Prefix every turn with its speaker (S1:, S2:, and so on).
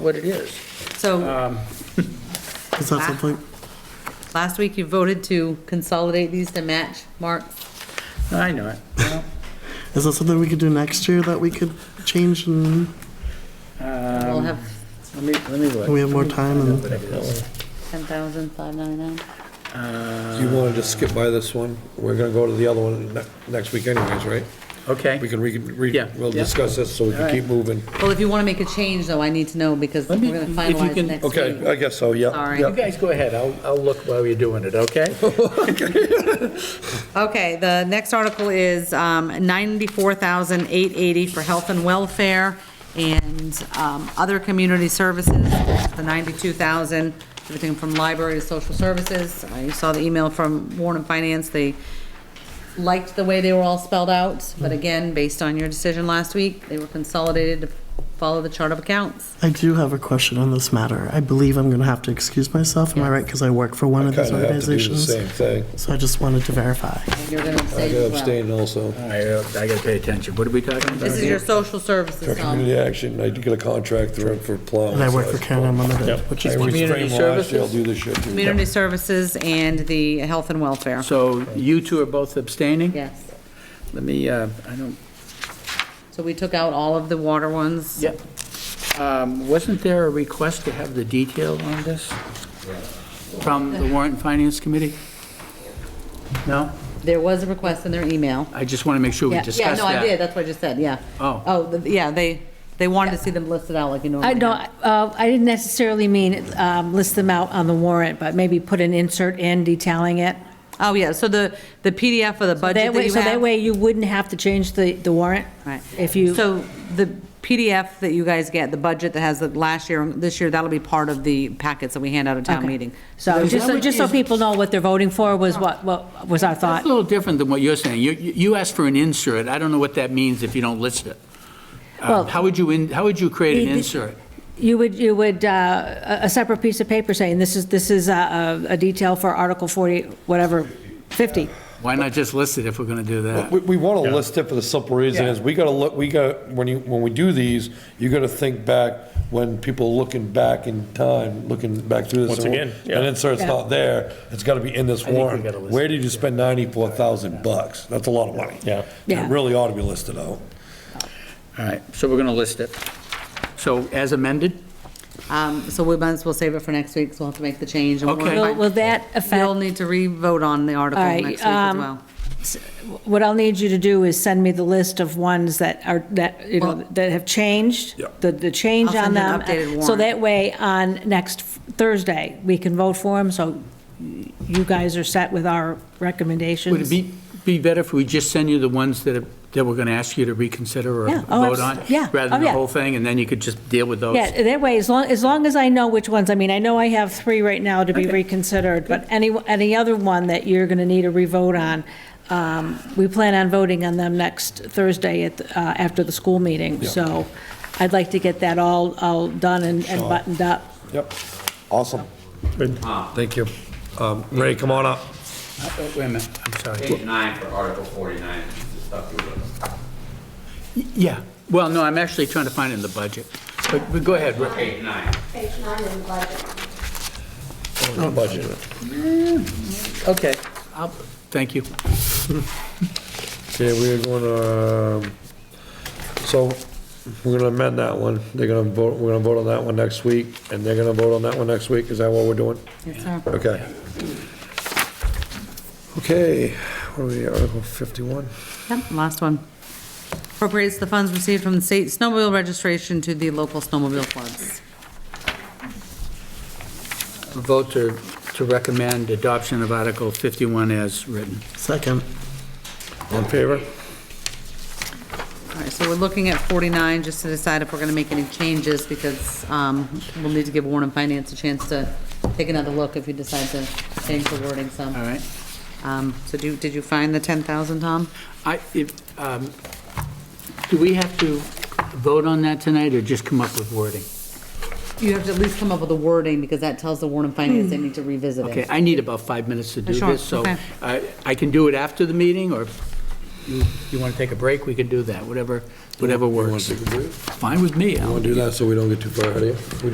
S1: what it is.
S2: So
S1: Um,
S3: Is that something?
S2: last week you voted to consolidate these to match Mark's.
S1: I know it. Well,
S3: Is that something we could do next year that we could change and
S2: We'll
S1: Um,
S2: have
S1: Let me, let me look.
S3: we have more time and
S2: ten thousand five ninety-nine.
S4: You wanted to skip by this one? We're gonna go to the other one ne- next week anyways, right?
S1: Okay.
S4: We can, re re
S1: Yeah,
S4: we'll
S1: yeah.
S4: discuss this so we can keep moving.
S2: Well, if you want to make a change though, I need to know because we're
S1: Let me-
S2: gonna
S1: if you
S2: finalize
S1: can-
S2: next week.
S4: Okay, I guess so, yeah.
S2: Sorry.
S4: yeah.
S1: You guys go ahead, I'll, I'll look while you're doing it, okay?
S2: Okay, the next article is um, 94,880 for health and welfare and um, other community services, the 92,000, everything from library to social services. I saw the email from Warren and Finance, they liked the way they were all spelled out, but again, based on your decision last week, they were consolidated to follow the chart of accounts.
S3: I do have a question on this matter. I believe I'm going to have to excuse myself. Am I right? Because I work for one of these
S4: Kinda have to do the
S3: organizations.
S4: same thing.
S3: So I just wanted to verify.
S2: And you're gonna
S4: I
S2: abstain
S4: gotta
S2: as well.
S4: abstain also.
S1: All right, uh, I gotta pay attention. What are we talking about?
S2: This is your social services, um,
S4: Community action, I did get a contract through for plow.
S3: And I work for Canon Limited, which is
S4: I
S3: one.
S1: Community
S4: restrained last year, I'll
S1: services?
S4: do this year too.
S2: community services and the health and welfare.
S1: So you two are both abstaining?
S2: Yes.
S1: Let me, uh, I don't,
S2: So we took out all of the water ones.
S1: yep. Um, Wasn't there a request to have the detail on this? From the warrant and finance committee? No?
S2: There was a request in their email.
S1: I just want to make sure we
S2: Yeah,
S1: discuss
S2: yeah,
S1: that.
S2: no, I did, that's what I just said, yeah.
S1: Oh.
S2: Oh, th- yeah, they, they wanted to see them listed out like you normally
S5: I
S2: have.
S5: don't, uh, I didn't necessarily mean um, list them out on the warrant, but maybe put an insert in detailing it.
S2: Oh, yeah, so the, the PDF of the budget
S5: That
S2: that
S5: way,
S2: you
S5: so that
S2: have.
S5: way you wouldn't have to change the, the warrant.
S2: Right.
S5: If you,
S2: So the PDF that you guys get, the budget that has the last year, and this year, that'll be part of the packets that we hand out at town
S5: Okay.
S2: meeting.
S5: so
S1: Is
S5: just,
S1: that
S5: so
S1: what
S5: just so
S1: is-
S5: people know what they're voting for was what, what was our
S1: That's
S5: thought.
S1: a little different than what you're saying. You, you you asked for an insert. I don't know what that means if you don't list it. Um,
S5: Well-
S1: How would you, in- how would you create an
S5: You-
S1: insert?
S5: You would, you would, uh, a a separate piece of paper saying, this is, this is a, a detail for Article 40, whatever, 50.
S1: Why not just list it if we're going to do that?
S4: We, we want to list it for the simple reason is, we gotta look, we got, when you, when we do these, you gotta think back when people are looking back in time, looking back through this.
S6: Once
S4: and-
S6: again, yeah.
S4: And insert's not there, it's gotta be in this
S1: we
S4: warrant.
S1: gotta list
S4: Where did you spend ninety-four thousand bucks? That's a lot of money.
S6: Yeah.
S5: Yeah.
S4: It really ought to be listed out.
S1: All right, so we're going to list it. So as amended?
S2: Um, so we might as well save it for next week, so we'll have to make the change. and we'll
S1: Okay.
S5: Will
S2: find-
S5: will that affect?
S2: You'll need to re-vote on the article
S5: All right,
S2: next week as
S5: um,
S2: well.
S5: What I'll need you to do is send me the list of ones that are, that, you know,
S2: Well-
S5: that have changed,
S4: Yeah.
S5: the, the change
S2: I'll
S5: on
S2: send you an
S5: them.
S2: updated
S5: So
S2: warrant.
S5: that way, on next Thursday, we can vote for them, so you guys are set with our recommendations.
S1: Would it be, be better if we just send you the ones that, are- that we're going to ask you to reconsider or
S5: Yeah, oh,
S1: vote
S5: abs-
S1: on?
S5: yeah,
S1: Rather
S5: oh,
S1: than the
S5: yeah.
S1: whole thing, and then you could just deal with those?
S5: Yeah, that way, as long, as long as I know which ones, I mean, I know I have three right now to be reconsidered, but any, any other one that you're going to need a revote on, um, we plan on voting on them next Thursday at, the- uh, after the school meeting, so I'd like to get that all, all done and and buttoned up.
S4: Yep. Awesome. Thank you. Um, Ray, come on up.
S1: Oh, Wait a minute, I'm sorry.
S7: Page nine for Article forty-nine, is the stuff you were looking for.
S1: Yeah, well, no, I'm actually trying to find it in the budget. But but go ahead, Rick.
S7: Page nine.
S8: Page nine in the budget.
S4: Budget.
S1: Okay. I'll- Thank you.
S4: Okay, we're gonna, um, so, we're gonna amend that one. They're gonna vote, we're gonna vote on that one next week, and they're gonna vote on that one next week. Is that what we're doing?
S2: Yes, sir.
S4: Okay. Okay, what are we, Article 51?
S2: Yep, last one. Appropriates the funds received from the state snowmobile registration to the local snowmobile clubs.
S1: Vote to, to recommend adoption of Article 51 as written.
S3: Second.
S4: On favor?
S2: All right, so we're looking at 49, just to decide if we're going to make any changes, because um, we'll need to give Warren and Finance a chance to take another look if you decide to change the wording
S1: All
S2: some.
S1: right.
S2: Um, So do, did you find the 10,000, Tom?
S1: I, if, um, do we have to vote on that tonight or just come up with wording?
S2: You have to at least come up with a wording, because that tells the Warren and Finance they need to revisit it.
S1: Okay, I need about five minutes to do
S2: Sure,
S1: this, so
S2: okay.
S1: I, I can do it after the meeting or you, you want to take a break, we can do that, whatever, whatever
S4: You wanna
S1: works.
S4: take a break?
S1: Fine with me, Alan.
S4: Want to do that so we don't get too far ahead of you? We